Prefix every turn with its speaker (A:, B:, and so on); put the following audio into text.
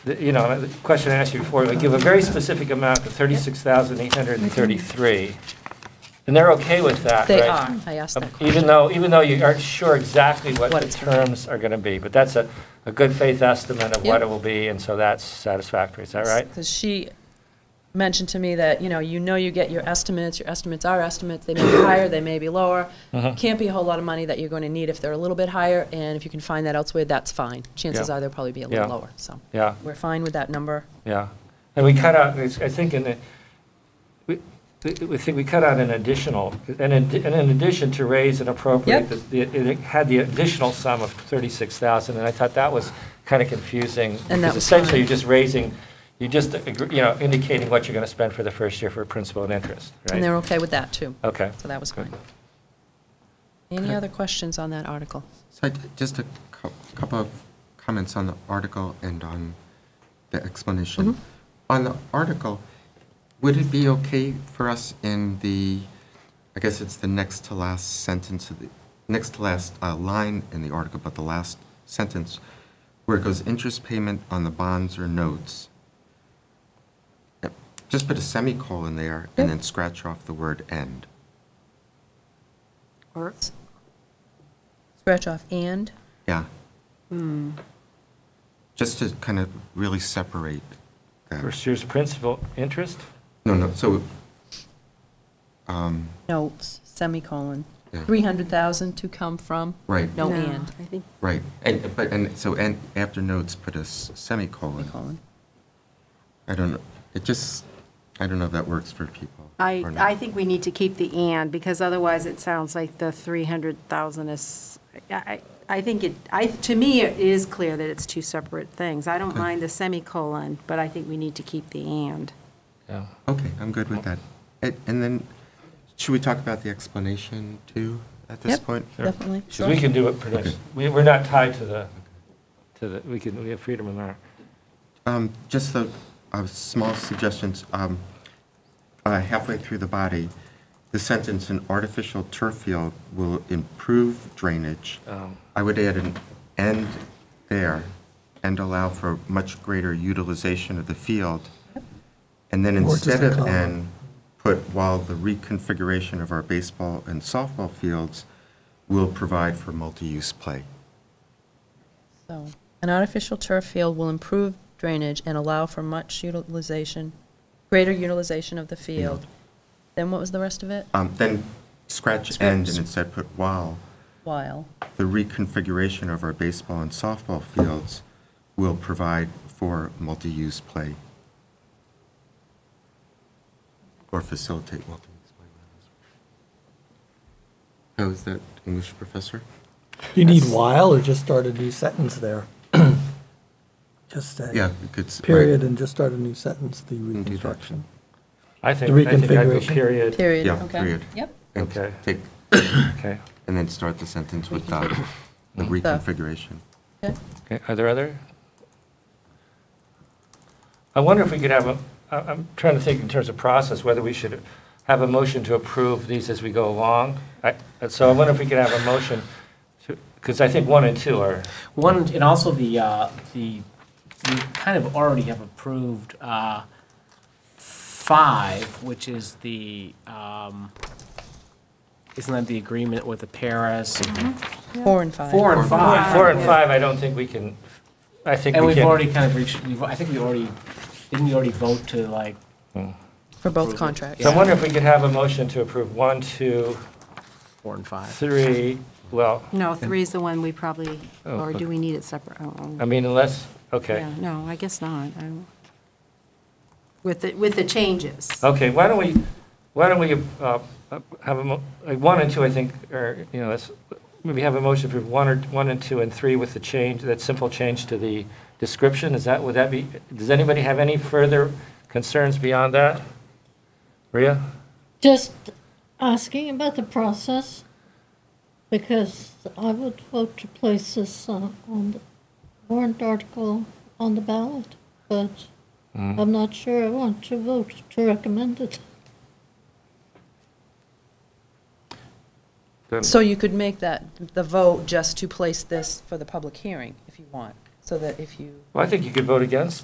A: the- you know, the question I asked you before, like, give a very specific amount of 36,833, and they're okay with that, right? Um,
B: They are, I asked that question.
A: Even though, even though you aren't sure exactly what
B: What
A: the
B: it's gonna be.
A: terms are going to be, but that's a, a good faith estimate of what
B: Yeah.
A: it will be, and so that's satisfactory, is that right?
B: Because she mentioned to me that, you know, you know you get your estimates, your estimates are estimates, they may be higher, they may be lower.
A: Uh-huh.
B: Can't be a whole lot of money that you're going to need if they're a little bit higher, and if you can find that elsewhere, that's fine. Chances
A: Yeah.
B: are they'll probably be a little
A: Yeah.
B: lower, so.
A: Yeah,
B: We're fine with that number.
A: yeah. And we cut out, it's- I think in the, we, we- we think we cut out an additional, and in and in addition to raise and appropriate,
B: Yep.
A: the- the- it had the additional sum of 36,000, and I thought that was kind of confusing.
B: that
A: because
B: was
A: Essentially,
B: fine.
A: you're just raising, you're just, you know, indicating what you're going to spend for the first year for principal and interest, right?
B: And they're okay with that, too.
A: Okay.
B: So that was
A: Good.
B: fine. Any other questions on that article?
C: So I- just a cou- couple of comments on the article and on the explanation. On the article, would it be okay for us in the, I guess it's the next to last sentence of the, next to last uh, line in the article, but the last sentence, where it goes interest payment on the bonds or notes. Yep, Just put a semicolon there and then scratch off the word end.
D: Or,
B: Scratch off and?
C: Yeah.
D: Hmm.
C: Just to kind of really separate that.
A: First year's principal interest?
C: No, no, so, um,
B: Notes, semicolon,
C: Yeah.
B: 300,000 to come from?
C: Right.
B: No
D: no,
B: and,
D: I think,
C: right, and, but, and, so, and after notes, put a s- semicolon.
B: semicolon.
C: I don't know, it just, I don't know if that works for people.
D: I,
C: or not.
D: I think we need to keep the and, because otherwise it sounds like the 300,000 is, I, I I think it, I, to me, it is clear that it's two separate things. I don't mind the semicolon, but I think we need to keep the and.
A: Yeah.
C: Okay, I'm good with that. And, and then, should we talk about the explanation too, at this
B: Yep.
C: point?
B: Definitely,
A: Because we
B: sure.
A: can do it pretty much,
C: Okay.
A: we- we're not tied to the, to the, we can, we have freedom in our,
C: Um, just the, uh, small suggestions, um, uh, halfway through the body, the sentence, an artificial turf field will improve drainage.
A: um,
C: I would add an end there and allow for much greater utilization of the field. And then
E: Or just
C: instead
E: a
C: of
E: comma.
C: an, put while the reconfiguration of our baseball and softball fields will provide for multi-use play.
B: So, an artificial turf field will improve drainage and allow for much utilization, greater utilization of the field. Then what was the rest of it?
C: Um, Then scratch end and instead put while
B: While,
C: the reconfiguration of our baseball and softball fields will provide for multi-use play. Or facilitate multi-use play. How is that, English professor?
E: You need while or just start a new sentence there? Just
C: Yeah,
E: a
C: it could. s- right,
E: period and just start a new sentence, the
C: that.
E: reconstruction.
A: I think, I think I'd go
E: reconfiguration.
A: period.
B: period,
C: Yeah,
B: okay.
C: period.
B: Yep,
C: And
A: Okay.
C: Take,
A: Okay.
C: and then start the sentence with the the reconfiguration.
B: okay.
A: Okay, are there other? I wonder if we could have a, I- I'm trying to think in terms of process, whether we should have a motion to approve these as we go along. I- uh, So I wonder if we could have a motion, because I think one and two are,
F: One, and also the, uh, the, we kind of already have approved uh, five, which is the, um, isn't that the agreement with the Paris?
B: Four and five.
F: Four and five.
A: four and five, I don't think we can, I think
F: And
A: we
F: we've
A: can.
F: already kind of reached, we've, I think we already, didn't we already vote to like,
B: For both
F: Approve it.
B: contracts.
A: So I wonder if we could have a motion to approve one, two,
F: four and five?
A: three, well,
D: No, three is the one we probably,
A: Oh,
D: or
A: okay.
D: do we need it separate? Oh, oh.
A: I mean, unless, okay.
D: Yeah, No, I guess not. I don't- With the, with the changes.
A: Okay, why don't we, why don't we uh, have a, mo- like, one and two, I think, or, you know, let's, maybe have a motion for one or, one and two and three with the change, that simple change to the description, is that, would that be, does anybody have any further concerns beyond that? Rhea?
G: Just asking about the process, because I would vote to place this uh, on the warrant article on the ballot, but I'm not sure I want to vote to recommend it.
A: Then-
B: So you could make that, the vote just to place this for the public hearing, if you want, so that if you
A: Well, I think you could vote against